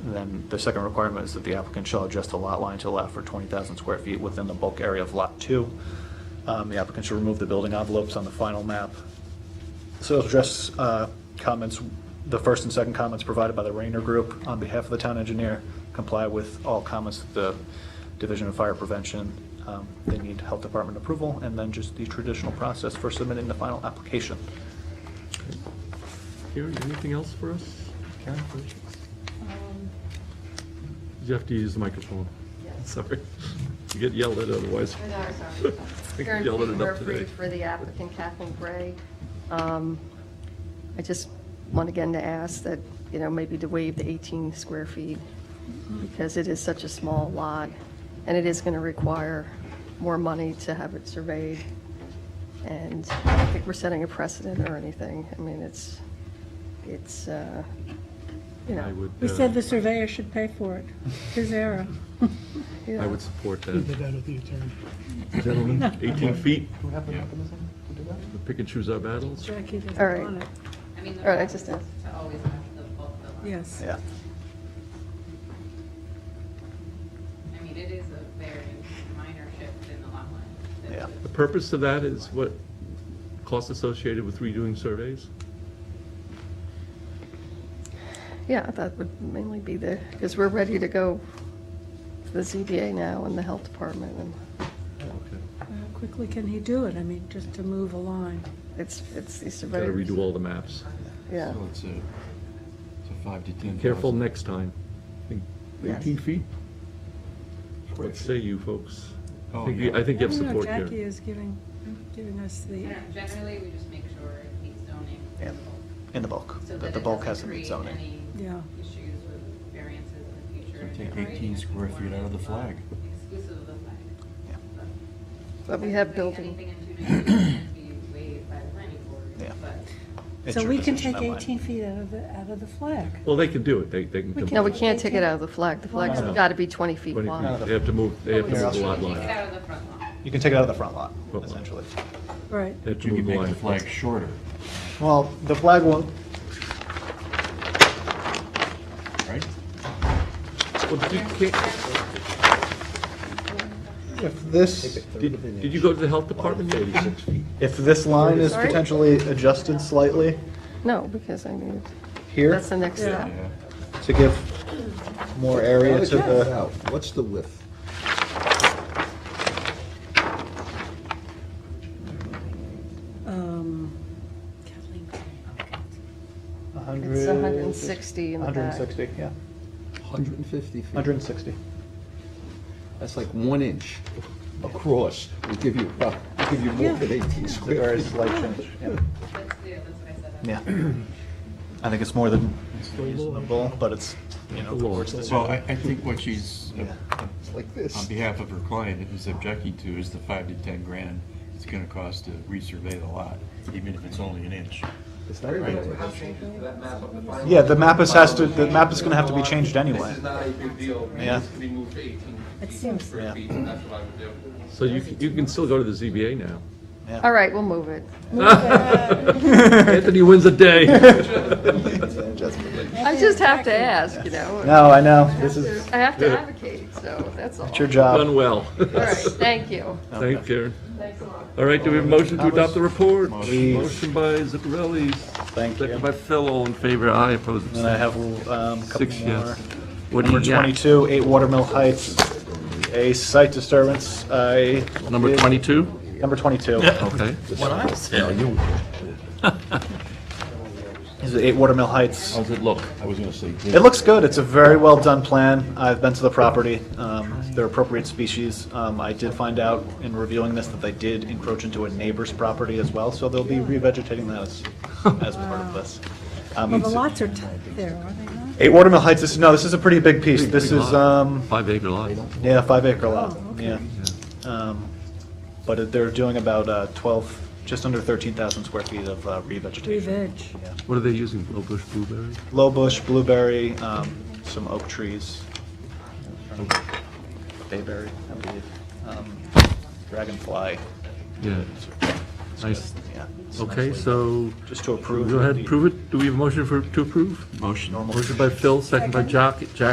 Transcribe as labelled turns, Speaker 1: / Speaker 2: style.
Speaker 1: And then the second requirement is that the applicant shall adjust the lot line to allow for 20,000 square feet within the bulk area of Lot 2. Um, The applicant should remove the building envelopes on the final map. So it'll address uh, comments, the first and second comments provided by the Rayner Group on behalf of the town engineer, comply with all comments that the Division of Fire Prevention, um, they need Health Department approval, and then just the traditional process for submitting the final application.
Speaker 2: Karen, anything else for us?
Speaker 1: Karen?
Speaker 3: Um,
Speaker 2: You have to use the microphone.
Speaker 3: Yes.
Speaker 2: Sorry. You get yelled at otherwise.
Speaker 3: I'm sorry, sorry.
Speaker 2: We
Speaker 3: Karen
Speaker 2: yelled at it up today.
Speaker 3: Murphy for the applicant Kathleen Gray. Um, I just want again to ask that, you know, maybe to waive the 18 square feet because it is such a small lot and it is going to require more money to have it surveyed. And I don't think we're setting a precedent or anything. I mean, it's, it's, uh, you
Speaker 2: I
Speaker 3: know,
Speaker 2: would,
Speaker 4: We
Speaker 2: uh,
Speaker 4: said the surveyor should pay for it, his error.
Speaker 3: you
Speaker 2: I
Speaker 3: know,
Speaker 2: would support
Speaker 5: Did
Speaker 2: that.
Speaker 5: that with the attorney.
Speaker 2: Gentlemen, 18 feet,
Speaker 1: Do we have the mechanism to do that?
Speaker 2: we pick and choose our battles.
Speaker 4: Jackie doesn't
Speaker 3: All right.
Speaker 4: want it.
Speaker 6: I mean, the
Speaker 3: All right,
Speaker 6: practice is
Speaker 3: just a-
Speaker 6: to always have the bulk of the line.
Speaker 4: Yes.
Speaker 1: Yeah.
Speaker 6: I mean, it is a very minor shift in the lot line.
Speaker 1: Yeah.
Speaker 2: The purpose of that is what, cost associated with redoing surveys?
Speaker 3: Yeah, that would mainly be the, because we're ready to go to the ZBA now and the health department, and
Speaker 2: Okay.
Speaker 4: How quickly can he do it? I mean, just to move a line.
Speaker 3: it's, it's the
Speaker 2: Got to
Speaker 3: surveyors.
Speaker 2: redo all the maps.
Speaker 3: Yeah,
Speaker 7: So it's a, it's a five to 10,000.
Speaker 2: Careful next time. Think
Speaker 3: Yes.
Speaker 2: 18 feet? What say you folks? I
Speaker 7: Oh,
Speaker 2: think,
Speaker 7: yeah.
Speaker 2: you- I think you have
Speaker 4: I don't know,
Speaker 2: support here.
Speaker 4: Jackie is giving, giving us
Speaker 6: I
Speaker 4: the,
Speaker 6: don't know, generally, we just make sure it meets zoning. for the
Speaker 1: Yeah.
Speaker 6: bulk,
Speaker 1: In the bulk,
Speaker 6: So
Speaker 1: that
Speaker 6: that
Speaker 1: the
Speaker 6: it
Speaker 1: bulk
Speaker 6: doesn't
Speaker 1: has to meet
Speaker 6: create
Speaker 1: zoning.
Speaker 6: any
Speaker 4: Yeah.
Speaker 6: issues with variances in the future.
Speaker 7: So
Speaker 6: and
Speaker 7: take
Speaker 6: generating
Speaker 7: 18
Speaker 6: a
Speaker 7: square feet out of the
Speaker 6: conforming
Speaker 7: flag.
Speaker 6: lot Exclusive of the flag.
Speaker 1: Yeah.
Speaker 6: But-
Speaker 3: but we have
Speaker 6: Putting
Speaker 3: building,
Speaker 6: Anything in 290 can be waived by the planning board,
Speaker 1: Yeah.
Speaker 6: but
Speaker 1: It's
Speaker 4: so
Speaker 1: your
Speaker 4: we can
Speaker 1: decision,
Speaker 4: take
Speaker 1: not mine.
Speaker 4: 18 feet out of the, out of the flag.
Speaker 2: Well, they can do it. They, they can.
Speaker 4: We
Speaker 2: come
Speaker 3: no,
Speaker 2: up
Speaker 3: we
Speaker 2: with
Speaker 3: can't take it out of the flag, the flag's
Speaker 1: No.
Speaker 3: got to be 20 feet
Speaker 2: 20 feet.
Speaker 3: wide.
Speaker 2: They have to move, they have to
Speaker 3: Oh,
Speaker 1: Here,
Speaker 2: move the
Speaker 1: I'll
Speaker 2: lot
Speaker 6: take it
Speaker 2: line.
Speaker 6: out of the front lot.
Speaker 1: You can take it out of the front lot,
Speaker 2: Front lot.
Speaker 1: essentially.
Speaker 4: Right.
Speaker 2: They have to
Speaker 7: You
Speaker 2: move
Speaker 7: can
Speaker 2: the
Speaker 7: make
Speaker 2: line.
Speaker 7: the flag shorter.
Speaker 1: Well, the flag won't,
Speaker 7: Right?
Speaker 2: Well, did you, can't-
Speaker 1: if this,
Speaker 2: did, did you go to the health department yet?
Speaker 1: if this line is
Speaker 3: Sorry?
Speaker 1: potentially adjusted slightly
Speaker 3: No, because I mean,
Speaker 1: here
Speaker 3: that's the next step.
Speaker 7: Yeah.
Speaker 1: to give more area to the,
Speaker 8: What's the width?
Speaker 4: Um, Kathleen,
Speaker 1: 100.
Speaker 3: It's 160 in the back.
Speaker 1: 160, yeah,
Speaker 8: 150 feet?
Speaker 1: 160.
Speaker 8: That's like one inch across. We give you, uh, we give you more than 18
Speaker 1: It's a very
Speaker 8: square. feet.
Speaker 1: slight change, yeah.
Speaker 6: That's, yeah, that's what I said.
Speaker 1: Yeah. I think it's more than reasonable, but it's, you know, the board's
Speaker 7: Well, I,
Speaker 1: decision.
Speaker 7: I think what she's, uh,
Speaker 8: It's like
Speaker 7: on
Speaker 8: this.
Speaker 7: behalf of her client, is objecting to is the five to 10 grand it's going to cost to resurvey the lot, even if it's only an inch.
Speaker 8: It's not even like that.
Speaker 1: Yeah, the map is has to, the map is gonna have to be changed anyway.
Speaker 9: This is not a big deal.
Speaker 1: Yeah.
Speaker 9: This can be moved to 18
Speaker 4: It seems,
Speaker 9: square feet, and that's what I would do.
Speaker 2: So you, can- you can still go to the ZBA now.
Speaker 3: All right, we'll move it.
Speaker 2: Anthony wins a day.
Speaker 3: I just have to ask, you know,
Speaker 1: No, I know, this is,
Speaker 3: I have to advocate, so that's all.
Speaker 1: it's your
Speaker 3: All
Speaker 2: Done
Speaker 1: job.
Speaker 2: well.
Speaker 3: right, thank you.
Speaker 2: Thank you, Karen.
Speaker 3: Thanks a lot.
Speaker 2: All right, do we have a motion to adopt the report?
Speaker 1: Please.
Speaker 2: Motion by Zuccarelli,
Speaker 1: Thank you.
Speaker 2: second by Phil, all in favor, aye, opposed,
Speaker 1: And I
Speaker 2: abstained.
Speaker 1: have um, a couple
Speaker 2: Six
Speaker 1: more.
Speaker 2: yes. What do
Speaker 1: Number
Speaker 2: you got?
Speaker 1: 22, 8 Watermill Heights, a site disturbance. I-
Speaker 2: Number 22?
Speaker 1: Number 22.
Speaker 2: Okay.
Speaker 1: This is 8 Watermill Heights.
Speaker 7: How's it look? I was going to say.
Speaker 1: It looks good. It's a very well-done plan. I've been to the property. Um, They're appropriate species. Um, I did find out in reviewing this that they did encroach into a neighbor's property as well, so they'll be revegetating that as, as part of this. Um,
Speaker 4: well, the lots are tight there, are they not?
Speaker 1: 8 Watermill Heights, this, no, this is a pretty big piece. This
Speaker 2: big
Speaker 1: is,
Speaker 2: lot.
Speaker 1: um,
Speaker 2: Five acre lot.
Speaker 1: Yeah, five acre lot,
Speaker 4: Oh, okay.
Speaker 1: yeah. Um, But it- they're doing about uh, 12, just under 13,000 square feet of uh,
Speaker 4: Three
Speaker 1: revegetation.
Speaker 4: veg.
Speaker 2: What are they using, low bush blueberry?
Speaker 1: Low bush, blueberry, um, some oak trees, bayberry, I believe, um, dragonfly.
Speaker 2: Yeah, nice.
Speaker 1: Yeah.
Speaker 2: Okay, so,
Speaker 1: Just to approve.
Speaker 2: go ahead,
Speaker 1: the-
Speaker 2: prove it. Do we have a motion for, to approve?
Speaker 7: Motion.
Speaker 1: Normal.
Speaker 2: Motion by Phil, second by Jack, Jack.